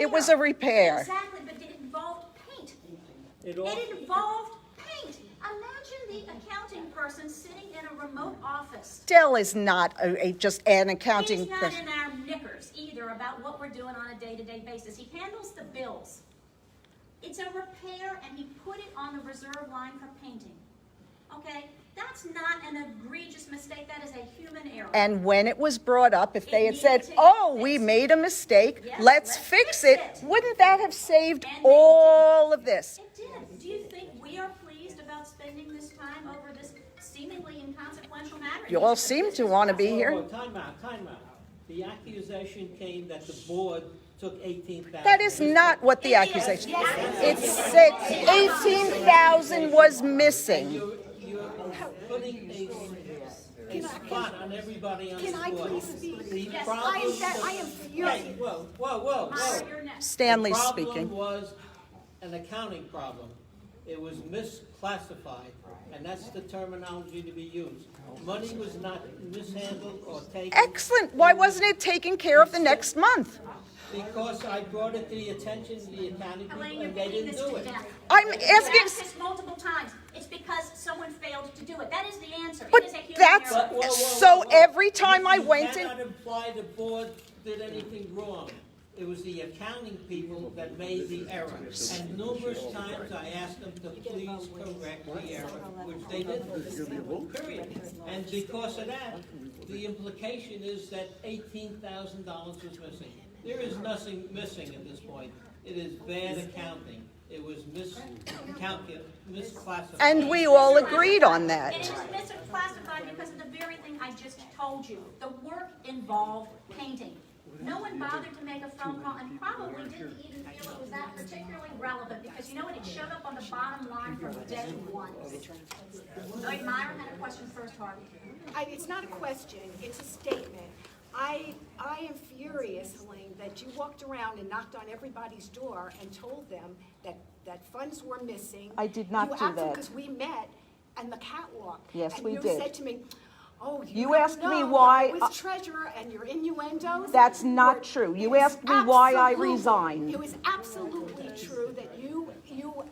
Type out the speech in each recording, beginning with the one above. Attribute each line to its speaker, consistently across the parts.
Speaker 1: It was a repair.
Speaker 2: Exactly, but it involved paint.
Speaker 3: It all,
Speaker 2: It involved paint. Imagine the accounting person sitting in a remote office.
Speaker 1: Dell is not a, a- just an
Speaker 2: He's
Speaker 1: accounting
Speaker 2: not
Speaker 1: person.
Speaker 2: in our knickers either about what we're doing on a day-to-day basis. He handles the bills. It's a repair and he put it on the reserve line for painting. Okay? That's not an egregious mistake. That is a human error.
Speaker 1: And when it was brought up, if they had said,
Speaker 2: needed to get
Speaker 1: oh, we
Speaker 2: fixed.
Speaker 1: made a mistake,
Speaker 2: Yes,
Speaker 1: let's
Speaker 2: let's
Speaker 1: fix
Speaker 2: fix it.
Speaker 1: it, wouldn't that have saved
Speaker 2: And they
Speaker 1: all of this?
Speaker 2: It did. Do you think we are pleased about spending this time over this seemingly inconsequential matter?
Speaker 1: You all seem to want to be
Speaker 3: oh,
Speaker 1: here.
Speaker 3: oh, time out, time out. The accusation came that the board took eighteen thousand.
Speaker 1: That is not what the accusation, it said 18,000 was missing.
Speaker 3: You're, you're putting a, a spot on everybody on the
Speaker 4: Can I
Speaker 3: board.
Speaker 4: please speak?
Speaker 3: The
Speaker 2: Yes, I am
Speaker 3: problem
Speaker 4: that- I am
Speaker 3: was-
Speaker 4: furious.
Speaker 3: Hey, whoa, whoa, whoa, whoa.
Speaker 2: Honor your neck.
Speaker 1: Stanley
Speaker 3: The problem
Speaker 1: speaking.
Speaker 3: was an accounting problem. It was misclassified, and that's the terminology to be used. Money was not mishandled or taken.
Speaker 1: Excellent, why wasn't it taken care of the next month?
Speaker 3: Because I brought it to the attention of the accounting people,
Speaker 2: Elaine, you're
Speaker 3: and they
Speaker 2: beating
Speaker 3: didn't
Speaker 2: this
Speaker 3: do
Speaker 2: to
Speaker 3: it.
Speaker 2: death.
Speaker 1: I'm
Speaker 2: You've
Speaker 1: asking,
Speaker 2: asked this multiple times. It's because someone failed to do it. That is the answer.
Speaker 1: But
Speaker 2: It is a human
Speaker 1: that's-
Speaker 2: error.
Speaker 3: But whoa, whoa,
Speaker 1: So
Speaker 3: whoa, whoa.
Speaker 1: every time
Speaker 3: You-
Speaker 1: I went in-
Speaker 3: You cannot imply the board did anything wrong. It was the accounting people that made the error. And numerous times I asked them to please correct the error, which they didn't. Period. And because of that, the implication is that eighteen thousand dollars was missing. There is nothing missing at this point. It is bad accounting. It was miscalculated, misclassified.
Speaker 1: and we all
Speaker 2: Classified.
Speaker 1: agreed
Speaker 2: It
Speaker 1: on
Speaker 2: is
Speaker 1: that.
Speaker 2: misclassified because of the very thing I just told you. The work involved painting. No one bothered to make a phone call and probably didn't even feel it was that particularly relevant because you know what? It showed up on the bottom line from day one. Lloyd Meyer had a question first, Harvey.
Speaker 4: I, it's not a question, it's a statement. I, I am furious, Helene, that you walked around and knocked on everybody's door and told them that, that funds were missing.
Speaker 1: I did not do that.
Speaker 4: Because we met and the catwalk.
Speaker 1: Yes, we
Speaker 4: And
Speaker 1: did.
Speaker 4: you said to me, oh,
Speaker 1: You
Speaker 4: you don't
Speaker 1: asked me
Speaker 4: know that
Speaker 1: why
Speaker 4: I
Speaker 1: I-
Speaker 4: was treasurer and your innuendos.
Speaker 1: That's not
Speaker 4: were-
Speaker 1: true. You
Speaker 4: It was
Speaker 1: asked me why I
Speaker 4: absolutely-
Speaker 1: resigned.
Speaker 4: It was absolutely true that you, you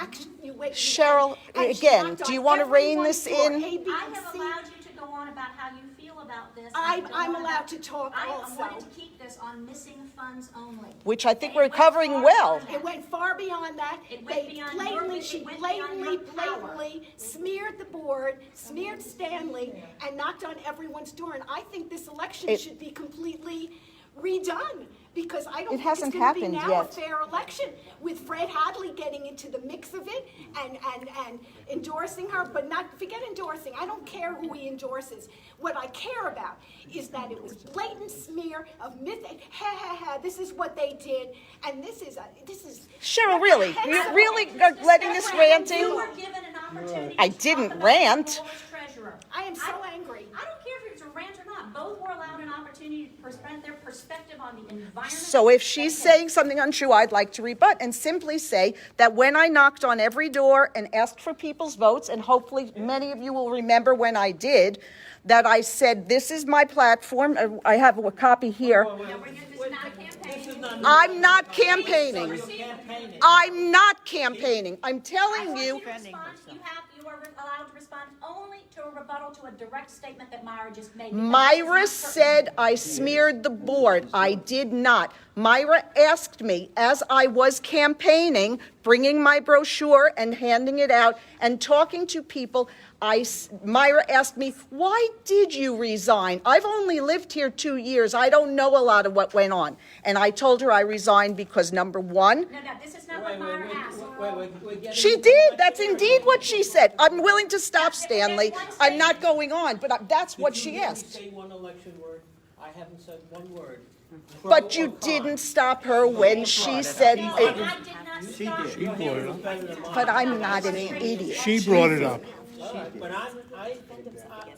Speaker 4: act, you wait. you
Speaker 1: Cheryl,
Speaker 4: act- and she
Speaker 1: again,
Speaker 4: knocked
Speaker 1: do
Speaker 4: on
Speaker 1: you wanna rein
Speaker 4: everyone's
Speaker 1: this
Speaker 4: door,
Speaker 1: in?
Speaker 4: A, B,
Speaker 2: I
Speaker 4: and
Speaker 2: have
Speaker 4: C.
Speaker 2: allowed you to go on about how you feel about this.
Speaker 4: I'm-
Speaker 2: I don't
Speaker 4: I'm
Speaker 2: wanna-
Speaker 4: allowed to talk
Speaker 2: I-
Speaker 4: also.
Speaker 2: I wanted to keep this on missing funds only.
Speaker 1: Which I
Speaker 2: And
Speaker 1: think
Speaker 2: it
Speaker 1: we're
Speaker 2: went
Speaker 1: covering
Speaker 2: far
Speaker 1: well.
Speaker 2: beyond that.
Speaker 4: It went far beyond that.
Speaker 2: It went
Speaker 4: They
Speaker 2: beyond your-
Speaker 4: blatantly,
Speaker 2: it
Speaker 4: she
Speaker 2: went beyond
Speaker 4: blatantly,
Speaker 2: your power.
Speaker 4: blatantly smeared the board, smeared Stanley, and knocked on everyone's door. And I think this election
Speaker 1: It-
Speaker 4: should be completely redone, because I don't
Speaker 1: It
Speaker 4: think it's
Speaker 1: hasn't
Speaker 4: gonna be
Speaker 1: happened
Speaker 4: now a
Speaker 1: yet.
Speaker 4: fair election, with Fred Hadley getting into the mix of it and, and, and endorsing her, but not, forget endorsing, I don't care who he endorses. What I care about is that it was blatant smear of myth, ha, ha, ha, this is what they did, and this is, a- this is.
Speaker 1: Cheryl, really? You're really uh, letting this
Speaker 2: You
Speaker 1: ranting?
Speaker 2: were given an opportunity
Speaker 1: I
Speaker 2: to talk
Speaker 1: didn't
Speaker 2: about
Speaker 1: rant.
Speaker 2: the board's treasurer.
Speaker 4: I am so angry.
Speaker 2: I don't care if it's a rant or not, both were allowed an opportunity to present their perspective on the environment.
Speaker 1: So if she's
Speaker 2: that they-
Speaker 1: saying something untrue, I'd like to rebut and simply say that when I knocked on every door and asked for people's votes, and hopefully many of you will remember when I did, that I said, this is my platform, Uh, I have a copy here.
Speaker 2: Now, we're gonna- This is not a
Speaker 3: This is
Speaker 2: campaign.
Speaker 3: not.
Speaker 1: I'm not
Speaker 3: You're
Speaker 1: campaigning.
Speaker 3: campaigning.
Speaker 1: I'm not campaigning. I'm
Speaker 2: I
Speaker 1: telling
Speaker 2: want
Speaker 1: you,
Speaker 2: to respond. You have, you are allowed to respond only to a rebuttal to a direct statement that Myra just made. because it's not
Speaker 1: Myra
Speaker 2: certain.
Speaker 1: said I smeared the board. I did not. Myra asked me, as I was campaigning, bringing my brochure and handing it out and talking to people, I, s- Myra asked me, why did you resign? I've only lived here two years. I don't know a lot of what went on. And I told her I resigned because number one,
Speaker 2: No, no, this is not
Speaker 3: Wait,
Speaker 2: what
Speaker 3: wait, wait,
Speaker 2: Myra asked.
Speaker 3: wait, wait, we're getting-
Speaker 1: she did. That's indeed what she said. I'm willing to stop, Stanley. I'm not going on, but I- that's what
Speaker 3: Did
Speaker 1: she
Speaker 3: you really
Speaker 1: asked.
Speaker 3: say one election word? I haven't said one word.
Speaker 1: But
Speaker 3: Pro
Speaker 1: you
Speaker 3: or con.
Speaker 1: didn't stop her when she said,
Speaker 2: No,
Speaker 1: it.
Speaker 2: I did not stop.
Speaker 3: Your hand was better than mine.
Speaker 1: but I'm not an idiot.
Speaker 5: She brought it up.
Speaker 3: All right, But I'm, I,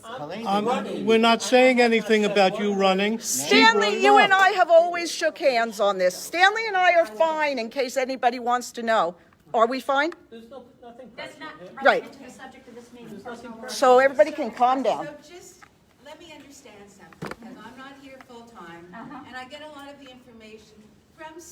Speaker 3: I, I'm
Speaker 5: Um,
Speaker 3: running.
Speaker 5: We're not saying anything about you running. She brought
Speaker 1: Stanley,
Speaker 5: it
Speaker 1: you
Speaker 5: up.
Speaker 1: and I have always shook hands on this. Stanley and I are fine, in case anybody wants to know. Are we fine?
Speaker 3: There's no, nothing
Speaker 2: That's
Speaker 3: personal
Speaker 2: not
Speaker 3: here.
Speaker 2: relevant to the subject of this meeting. personal words.
Speaker 1: So everybody can calm down.
Speaker 6: So just, let me understand something, because I'm not here full-time, and I get a lot of the information from